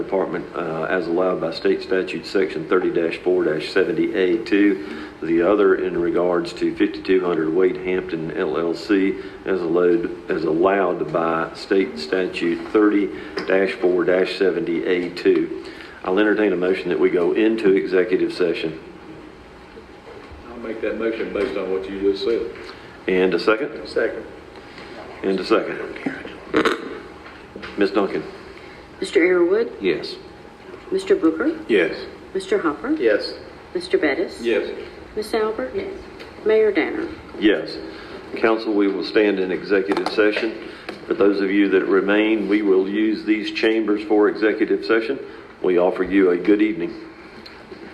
Department uh, as allowed by state statute, section 30-4-70A2. The other in regards to 5200 Wade Hampton LLC as allowed, as allowed by state statute 30-4-70A2. I'll entertain a motion that we go into executive session. I'll make that motion based on what you just said. And a second? Second. And a second. Ms. Duncan? Mr. Earwood, Yes. Mr. Booker, Yes. Mr. Hopper, Yes. Mr. Bettis, Yes. Miss Albert, Mayor Danner. Yes. Council, we will stand in executive session. For those of you that remain, we will use these chambers for executive session. We offer you a good evening.